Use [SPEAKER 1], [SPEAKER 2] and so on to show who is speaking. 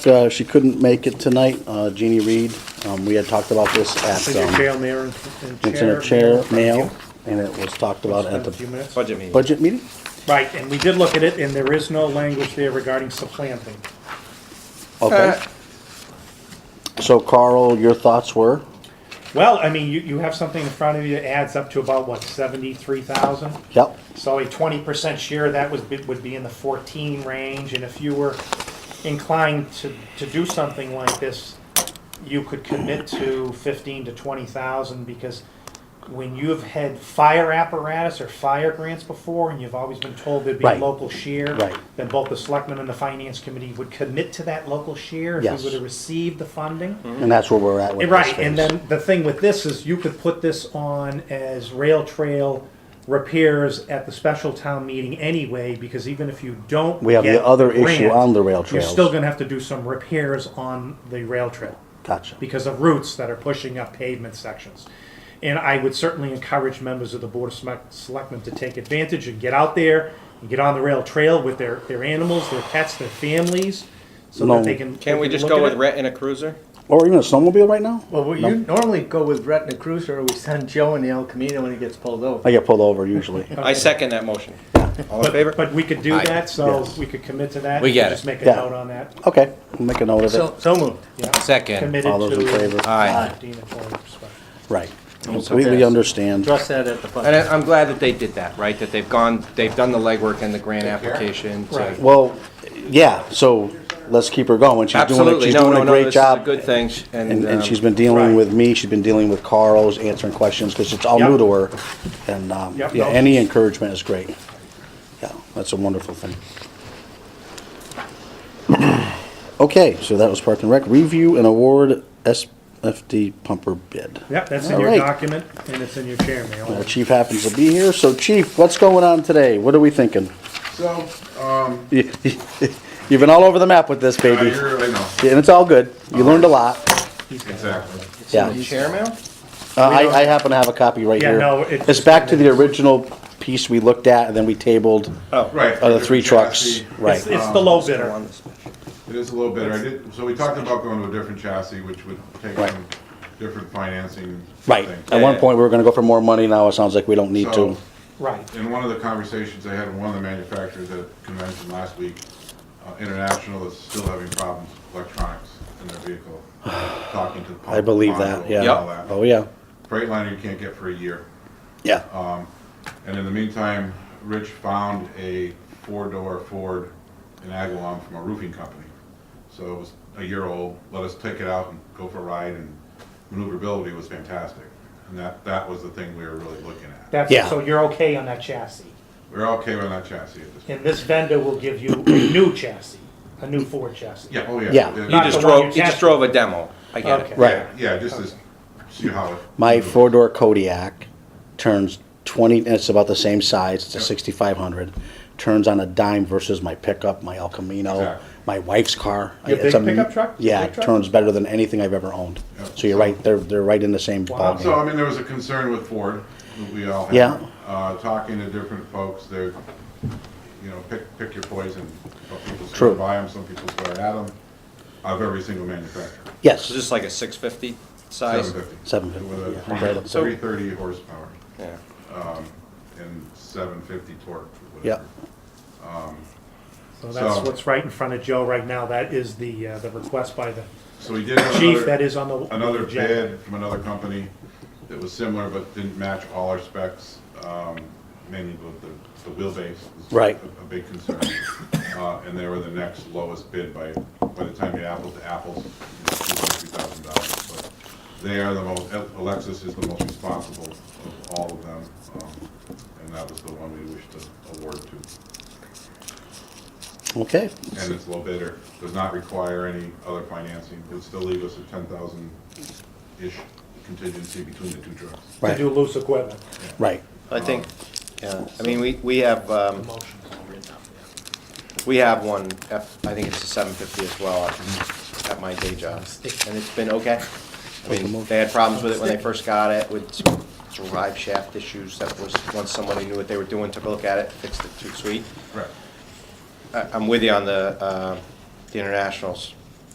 [SPEAKER 1] Uh, She couldn't make it tonight, uh, Jeannie Reed. Um, We had talked about this at,
[SPEAKER 2] Is it
[SPEAKER 1] um,
[SPEAKER 2] jail mayor and and chair?
[SPEAKER 1] it's in a chair
[SPEAKER 2] mail?
[SPEAKER 1] mail, and it was talked about at
[SPEAKER 2] Spend a few
[SPEAKER 1] the
[SPEAKER 2] minutes.
[SPEAKER 3] Budget meeting.
[SPEAKER 1] budget meeting.
[SPEAKER 2] Right, and we did look at it, and there is no language there regarding supplanting.
[SPEAKER 1] Okay.
[SPEAKER 2] Uh,
[SPEAKER 1] So Carl, your thoughts were?
[SPEAKER 2] Well, I mean, you, you have something in front of you that adds up to about, what, seventy-three thousand?
[SPEAKER 1] Yep,
[SPEAKER 2] So a twenty percent share, of that was, would be in the fourteen range, and if you were inclined to, to do something like this, you could commit to fifteen to twenty thousand, because when you've had fire apparatus or fire grants before, and you've always been told there'd be a
[SPEAKER 1] Right.
[SPEAKER 2] local share,
[SPEAKER 1] Right.
[SPEAKER 2] then both the selectmen and the finance committee would commit to that local share if
[SPEAKER 1] Yes.
[SPEAKER 2] we were to receive the funding.
[SPEAKER 1] and that's where we're at with this
[SPEAKER 2] Right, and
[SPEAKER 1] phase.
[SPEAKER 2] then the thing with this is you could put this on as rail trail repairs at the special town meeting anyway, because even if you don't.
[SPEAKER 1] We have the
[SPEAKER 2] get
[SPEAKER 1] other
[SPEAKER 2] grant,
[SPEAKER 1] issue on the rail
[SPEAKER 2] You're still
[SPEAKER 1] trails.
[SPEAKER 2] gonna have to do some repairs on the rail trail
[SPEAKER 1] Gotcha.
[SPEAKER 2] because of roots that are pushing up pavement sections. And I would certainly encourage members of the Board of Select- Selectmen to take advantage and get out there and get on the rail trail with their, their animals, their pets, their families, so
[SPEAKER 1] No.
[SPEAKER 2] that they can.
[SPEAKER 3] Can
[SPEAKER 2] they
[SPEAKER 3] we
[SPEAKER 2] can
[SPEAKER 3] just
[SPEAKER 2] look
[SPEAKER 3] go
[SPEAKER 2] at
[SPEAKER 3] with
[SPEAKER 2] it.
[SPEAKER 3] rent in a cruiser?
[SPEAKER 1] Or even a snowmobile right now?
[SPEAKER 4] Well, we you normally go with Rhett and a Cruiser, or we send Joe in the El Camino when he gets pulled over.
[SPEAKER 1] I get pulled over usually.
[SPEAKER 2] Uh,
[SPEAKER 3] I second that motion. All in
[SPEAKER 2] But,
[SPEAKER 3] favor?
[SPEAKER 2] but we could do
[SPEAKER 3] Aye.
[SPEAKER 2] that, so
[SPEAKER 1] Yes.
[SPEAKER 2] we could commit to that.
[SPEAKER 5] We get
[SPEAKER 2] Just
[SPEAKER 5] it.
[SPEAKER 2] make a
[SPEAKER 1] Yeah.
[SPEAKER 2] note on that,
[SPEAKER 1] Okay, we'll make a note of it.
[SPEAKER 4] So, so moved.
[SPEAKER 2] yeah.
[SPEAKER 5] Second.
[SPEAKER 2] Committed to.
[SPEAKER 1] All those in favor?
[SPEAKER 5] Aye.
[SPEAKER 2] Fifteen and twenty percent.
[SPEAKER 1] Right.
[SPEAKER 2] Oh,
[SPEAKER 1] Completely
[SPEAKER 3] Yes.
[SPEAKER 1] understand.
[SPEAKER 4] Address that at the budget.
[SPEAKER 5] And I- I'm glad that they did that, right? That they've gone, they've done the legwork and the grant application. to-
[SPEAKER 2] Right.
[SPEAKER 1] Well, yeah, so let's keep her going. She's doing, it.
[SPEAKER 5] Absolutely,
[SPEAKER 1] she's
[SPEAKER 5] no,
[SPEAKER 1] doing
[SPEAKER 5] no,
[SPEAKER 1] a
[SPEAKER 5] no,
[SPEAKER 1] great
[SPEAKER 5] this is a
[SPEAKER 1] job.
[SPEAKER 5] good thing.
[SPEAKER 1] And,
[SPEAKER 5] um,
[SPEAKER 1] and she's been dealing
[SPEAKER 2] right.
[SPEAKER 1] with me, she's been dealing with Carl's, answering questions, because it's all new
[SPEAKER 2] Yep.
[SPEAKER 1] to her. And, um,
[SPEAKER 2] Yep,
[SPEAKER 1] yeah,
[SPEAKER 2] no.
[SPEAKER 1] any encouragement is great. Yeah, that's a wonderful thing. Okay, so that was Park and Rec. Review and award SFD pumper bid.
[SPEAKER 2] Yep, that's in
[SPEAKER 1] All
[SPEAKER 2] your
[SPEAKER 1] right.
[SPEAKER 2] document, and it's in your chair
[SPEAKER 1] Our
[SPEAKER 2] mail.
[SPEAKER 1] chief happens to be here, so chief, what's going on today? What are we thinking?
[SPEAKER 6] So, um,
[SPEAKER 1] You- You've been all over the map with this,
[SPEAKER 6] I
[SPEAKER 1] baby.
[SPEAKER 6] hear- I know,
[SPEAKER 1] Yeah, And it's all good. You learned a lot.
[SPEAKER 6] exactly.
[SPEAKER 1] Yeah.
[SPEAKER 5] Chair mail?
[SPEAKER 1] Uh, I, I happen to have a copy right
[SPEAKER 2] Yeah,
[SPEAKER 1] here.
[SPEAKER 2] no, it's-
[SPEAKER 1] It's back to the original piece we looked at and then we tabled,
[SPEAKER 6] Right.
[SPEAKER 1] uh, the three trucks,
[SPEAKER 2] Oh, It's,
[SPEAKER 1] right.
[SPEAKER 2] it's the low bidder.
[SPEAKER 6] It is a little better. I did, so we talked about going to a different chassis, which would take
[SPEAKER 1] Right.
[SPEAKER 6] some different financing.
[SPEAKER 1] Right.
[SPEAKER 6] things.
[SPEAKER 1] At one point, we were gonna go for more money. Now it sounds like we don't need to.
[SPEAKER 6] So,
[SPEAKER 2] Right.
[SPEAKER 6] in one of the conversations I had with one of the manufacturers at a convention last week, uh, International is still having problems with electronics in their vehicle, talking to the.
[SPEAKER 1] I believe
[SPEAKER 6] module
[SPEAKER 1] that,
[SPEAKER 6] and all
[SPEAKER 1] yeah.
[SPEAKER 6] that.
[SPEAKER 1] Oh, yeah.
[SPEAKER 6] Freightliner you can't get for a year.
[SPEAKER 2] Uh,
[SPEAKER 1] Yeah.
[SPEAKER 6] And in the meantime, Rich found a four-door Ford in Agawam from a roofing company. So it was a year old, let us take it out and go for a ride, and maneuverability was fantastic. And that, that was the thing we were really looking at.
[SPEAKER 1] Yeah.
[SPEAKER 2] That's, so you're okay on that chassis.
[SPEAKER 6] We We're okay with that chassis at this point.
[SPEAKER 2] And this vendor will give you a new chassis, a new Ford chassis.
[SPEAKER 6] Yeah, oh yeah.
[SPEAKER 1] Yeah.
[SPEAKER 5] You
[SPEAKER 2] Not
[SPEAKER 5] just
[SPEAKER 2] the one you
[SPEAKER 5] drove, you just
[SPEAKER 2] tested.
[SPEAKER 5] drove a demo. I get
[SPEAKER 2] Okay.
[SPEAKER 5] it.
[SPEAKER 1] Right.
[SPEAKER 6] Yeah, just to see how it.
[SPEAKER 2] mm-hmm.
[SPEAKER 1] My
[SPEAKER 6] maneuvers.
[SPEAKER 1] four-door Kodiak turns twenty, and it's about the same size. It's a sixty-five hundred. Turns on a dime versus my pickup, my El Camino,
[SPEAKER 6] Exactly.
[SPEAKER 1] my wife's car.
[SPEAKER 2] Your
[SPEAKER 1] It's
[SPEAKER 2] big
[SPEAKER 1] a-
[SPEAKER 2] pickup truck?
[SPEAKER 1] Yeah,
[SPEAKER 2] Big
[SPEAKER 1] it
[SPEAKER 2] truck?
[SPEAKER 1] turns better than anything I've ever owned.
[SPEAKER 6] Yeah.
[SPEAKER 1] So you're right, they're, they're right in the same
[SPEAKER 2] Wow.
[SPEAKER 1] ballgame.
[SPEAKER 6] So, I mean, there was a concern with Ford, that we all had.
[SPEAKER 1] Yeah.
[SPEAKER 6] Uh, talking to different folks, they're, you know, pick, pick your poison. Some people
[SPEAKER 1] True.
[SPEAKER 6] swear by them, some people swear at them, of every single manufacturer.
[SPEAKER 1] Yes,
[SPEAKER 5] So just like a 650 size?
[SPEAKER 6] 750.
[SPEAKER 1] seven fifty,
[SPEAKER 6] With
[SPEAKER 1] yeah, right
[SPEAKER 6] a
[SPEAKER 1] up.
[SPEAKER 6] three thirty horsepower Um,
[SPEAKER 5] Yeah.
[SPEAKER 6] and seven fifty torque,
[SPEAKER 1] Yeah.
[SPEAKER 6] whatever.
[SPEAKER 2] So that's
[SPEAKER 6] So-
[SPEAKER 2] what's right in front of Joe right now. That is the, uh, the request by the
[SPEAKER 6] So we did have
[SPEAKER 2] chief that
[SPEAKER 6] another,
[SPEAKER 2] is on the.
[SPEAKER 6] another
[SPEAKER 2] agenda.
[SPEAKER 6] bid from another company that was similar but didn't match all our specs, um, mainly with the, the wheelbase. was
[SPEAKER 1] Right.
[SPEAKER 6] A a big concern. Uh, and they were the next lowest bid by, by the time you apples to apples, two hundred, three thousand dollars. But They are the most, Alexis is the most responsible of all of them, um, and that was the one we wished to award to.
[SPEAKER 1] Okay,
[SPEAKER 6] and it's low bidder, does not require any other financing, would still leave us a ten thousand-ish contingency between the two trucks.
[SPEAKER 2] To
[SPEAKER 1] Right.
[SPEAKER 2] do loose equipment.
[SPEAKER 1] right.
[SPEAKER 5] I think, yeah, I mean, we, we have, um, we have one, F, I think it's a seven fifty as well, at- at my day job, and it's been okay. I mean, they had problems with it when they first got it, with some drive shaft issues, that was, once somebody knew what they were doing, took a look at it, fixed it too sweet.
[SPEAKER 6] Correct.
[SPEAKER 5] I, I'm with you on the, uh, the internationals,